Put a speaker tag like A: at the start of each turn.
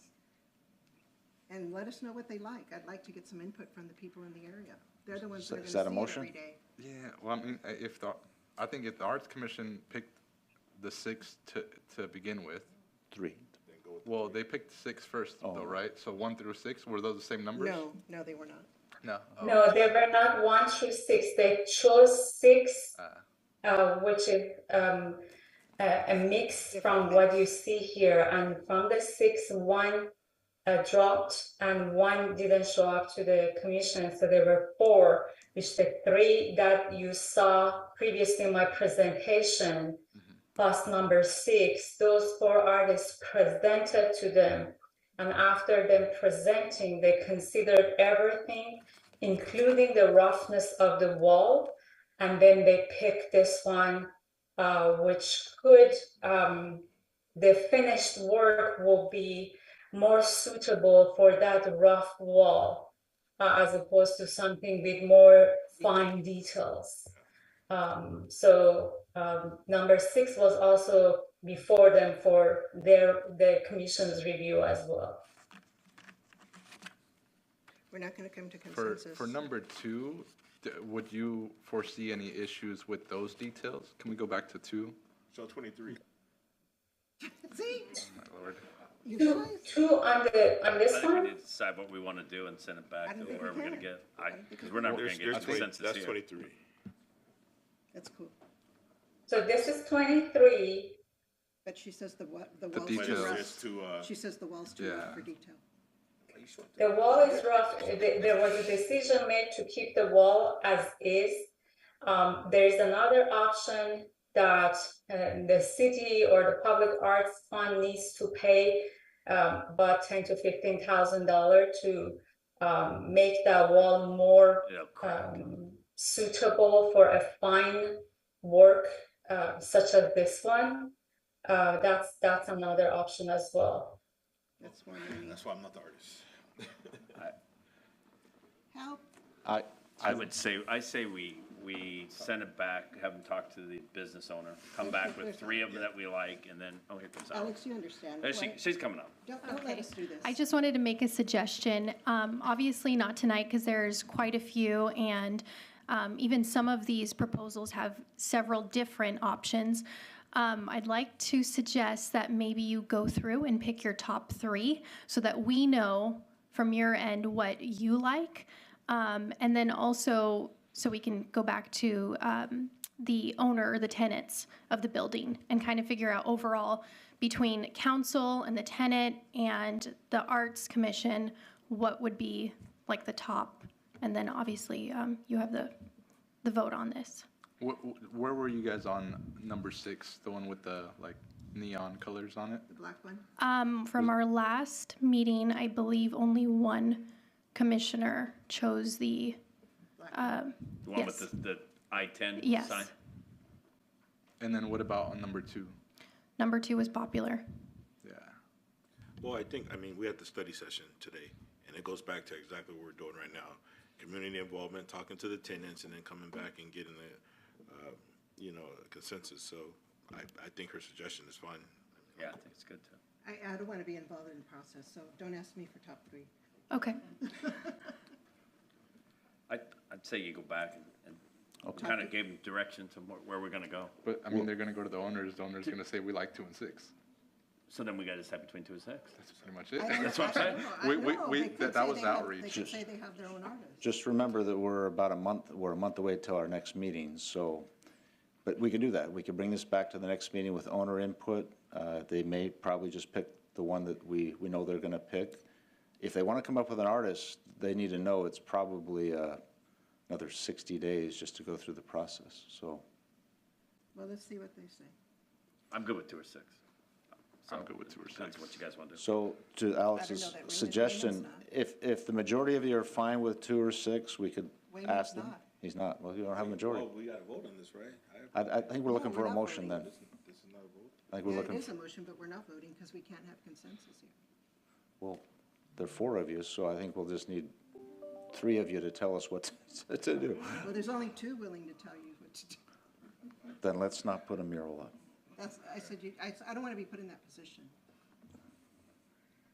A: and let us know what they like. I'd like to get some input from the people in the area. They're the ones that are
B: Is that a
A: gonna see it
B: motion?
A: every day.
C: Yeah, well, I mean, uh, if the, I think if the Arts Commission picked the six to, to begin with,
B: Three.
C: well, they picked six first though,
B: Oh.
C: right? So one through six, were those the same numbers?
A: No, no, they were not.
C: No? Oh,
D: No, they were not one through six. They chose six,
C: uh,
D: uh, which is um, a, a mix from what you see here. And from the six, one uh, dropped and one didn't show up to the commission. So there were four, which the three that you saw previously in my presentation, plus number six, those four artists presented to them. And after them presenting, they considered everything, including the roughness of the wall. And then they picked this one, uh, which could, um, the finished work will be more suitable for that rough wall uh, as opposed to something with more fine details. Um, so um, number six was also before them for their the commission's review as well.
A: We're not gonna come to
C: For,
A: consensus.
C: for number two, d- would you foresee any issues with those details? Can we go back to two?
E: So twenty-three.
A: See,
C: My lord.
A: you
D: Two,
A: guys,
D: two on the on
F: I
D: this
F: think we
D: one.
F: need to decide what we want to do and send it
A: I
F: back to
A: don't think we
F: where we're gonna
A: can.
F: get, I, because we're never gonna
E: There's,
F: get
E: there's twenty,
F: consensus
E: that's
F: here.
E: twenty-three.
A: that's cool.
D: So this is 23.
A: But she says the what, the wall's
E: But
A: too
C: details.
E: it's
C: Just-
A: rough.
E: just to, uh,
A: She says the wall's too rough
C: Yeah.
A: for detail.
D: The wall is rough. Th- There was a decision made to keep the wall as is. Um, there is another option that uh, the city or the public arts fund needs to pay um, about ten to fifteen thousand dollar to um, make that wall more
F: It'll crack.
D: um, suitable for a fine work uh, such as this one. Uh, that's that's another option as well.
A: That's one I need.
E: that's why I'm not the artist.
A: Help,
B: I,
F: I would say, I say we, we send it back, have them talk to the business owner, come back with three of them that we like, and then, oh, here comes Alex.
A: Alex, you understand.
F: There, she,
A: Why-
F: she's coming up.
A: Don't, don't let
G: Okay.
A: us do this.
G: I just wanted to make a suggestion. Um, obviously not tonight because there's quite a few and um, even some of these proposals have several different options. Um, I'd like to suggest that maybe you go through and pick your top three so that we know from your end what you like. Um, and then also, so we can go back to um, the owner or the tenants of the building and kind of figure out overall between council and the tenant and the arts commission, what would be like the top? And then obviously, um, you have the, the vote on this.
C: Wh- wh- Where were you guys on number six, the one with the like neon colors on it?
A: The black one.
G: Um, from our last meeting, I believe only one commissioner chose the,
F: The one with
G: Yes.
F: the, the I ten
G: Yes.
F: sign?
C: And then what about on number two?
G: number two was popular.
C: Yeah.
E: Well, I think, I mean, we had the study session today, and it goes back to exactly what we're doing right now. Community involvement, talking to the tenants, and then coming back and getting the, uh, you know, consensus. So I, I think her suggestion is fine.
F: Yeah, I think it's good too.
A: I, I don't want to be involved in the process, so don't ask me for top three.
G: Okay.
F: I, I'd say you go back and, and
B: Okay.
F: kind of gave them direction to where, where we're gonna go.
C: But I mean, they're gonna go to the owners, the owner's gonna say, we like two and six.
F: So then we gotta decide between two and six.
C: That's pretty much it.
A: I don't-
F: That's what I'm
A: I don't
F: saying.
A: know. I
C: We- we-
A: know.
C: we-
A: They could
C: that-
A: say
C: that was
A: they have- They
C: outreach.
A: could say they have their own artist.
B: just remember that we're about a month, we're a month away till our next meeting, so, but we can do that. We can bring this back to the next meeting with owner input. Uh, They may probably just pick the one that we, we know they're going to pick. If they want to come up with an artist, they need to know it's probably uh, another 60 days just to go through the process, so.
A: Well, let's see what they say.
F: I'm good with two or six.
C: I'm good with two or
F: Depends
C: six.
F: what you guys wanna do.
B: So to Alex's
A: that Raymond- Raymond's
B: suggestion,
A: not.
B: if, if the majority of you are fine with two or six, we could
A: Raymond's
B: ask them.
A: not.
B: He's not, well, you don't have a majority.
E: we gotta vote on this, right?
B: I, I think we're looking
A: we're
B: for a
A: not
B: motion then.
A: voting.
E: This is not a vote.
B: I think we're
A: Yeah, it
B: looking,
A: is a motion, but we're not voting because we can't have consensus here.
B: well, there are four of you, so I think we'll just need three of you to tell us what to- to do.
A: Well, there's only two willing to tell you what to do.
B: Then let's not put a mural up.
A: That's, I said, you, I, I don't want to be put in that position.